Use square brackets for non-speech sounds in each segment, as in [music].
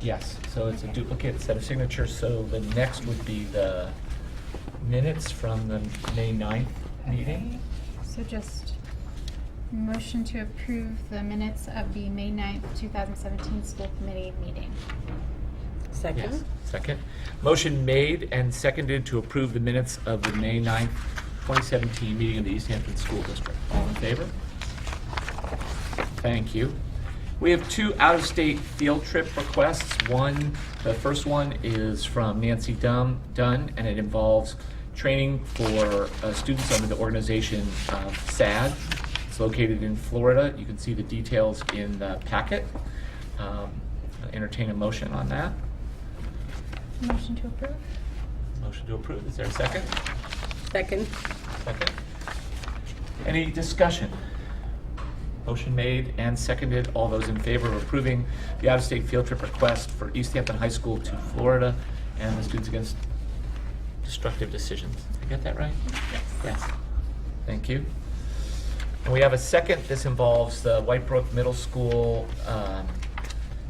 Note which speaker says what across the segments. Speaker 1: Yes, so it's a duplicate set of signatures, so the next would be the minutes from the May 9th meeting.
Speaker 2: So just motion to approve the minutes of the May 9th, 2017 school committee meeting.
Speaker 1: Yes,
Speaker 3: Second?
Speaker 1: second. Motion made and seconded to approve the minutes of the May 9th, 2017 meeting of the East Hampton School District. All in favor? Thank you. We have two out-of-state field trip requests. One, the first one is from Nancy Dum- Dunn, and it involves training for uh, students under the organization of SAD. It's located in Florida. You can see the details in the packet. Um, Entertain a motion on that.
Speaker 2: Motion to approve?
Speaker 1: Motion to approve, is there a second?
Speaker 3: Second?
Speaker 1: Second. Any discussion? Motion made and seconded, all those in favor of approving the out-of-state field trip request for East Hampton High School to Florida and the Students Against Destructive Decisions. Did I get that right? Yes. Thank you. And we have a second, this involves the White Brook Middle School, um,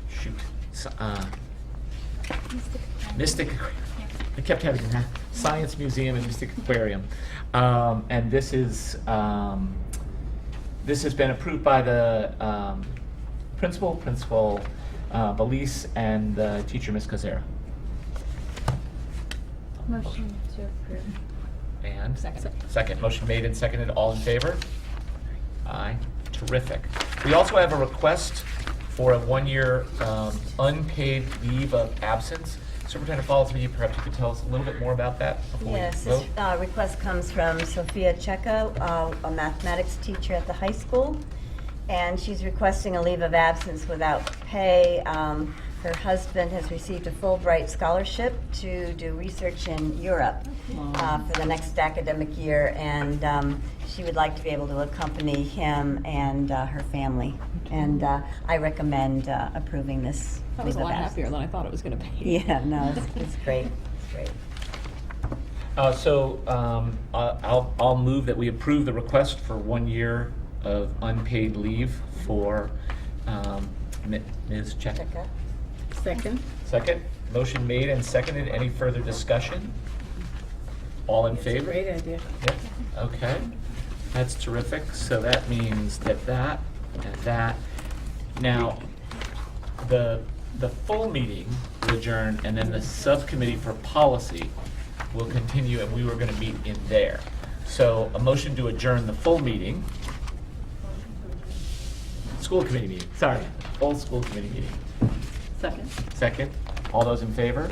Speaker 1: shoot, s- uh, Mystic Aquarium.
Speaker 2: Yeah.
Speaker 1: I kept having that. Science Museum and Mystic Aquarium. Um, and this is, um, this has been approved by the um, principal, Principal uh, Belize, and the teacher, Ms. Kazera.
Speaker 2: Motion to approve.
Speaker 1: And?
Speaker 2: Second.
Speaker 1: Second. Motion made and seconded. All in favor? Aye. Terrific. We also have a request for a one-year um, unpaid leave of absence. Superintendent Falls, maybe perhaps you could tell us a little bit more about that before we
Speaker 4: Yes, this
Speaker 1: vote?
Speaker 4: uh, request comes from Sophia Cheka, uh, a mathematics teacher at the high school, and she's requesting a leave of absence without pay. Um, Her husband has received a Fulbright scholarship to do research in Europe uh, for the next academic year, and um, she would like to be able to accompany him and uh, her family. And uh, I recommend uh, approving this
Speaker 5: That was
Speaker 4: leave
Speaker 5: a
Speaker 4: of
Speaker 5: lot
Speaker 4: absence.
Speaker 5: happier than I thought it was going to be.
Speaker 4: Yeah, no,
Speaker 5: [laughs]
Speaker 4: it's- it's great, it's great.
Speaker 1: Uh, so, um, I- I'll, I'll move that we approve the request for one year of unpaid leave for, um, Mi- Ms. Cheka.
Speaker 4: Cheka?
Speaker 3: Second?
Speaker 1: Second, motion made and seconded. Any further discussion? All in favor?
Speaker 3: Great idea.
Speaker 1: Yep, okay. That's terrific. So that means that that and that. Now, the, the full meeting will adjourn and then the subcommittee for policy will continue and we were gonna meet in there. So a motion to adjourn the full meeting. School committee meeting, sorry, full school committee meeting.
Speaker 3: Second?
Speaker 1: Second, all those in favor?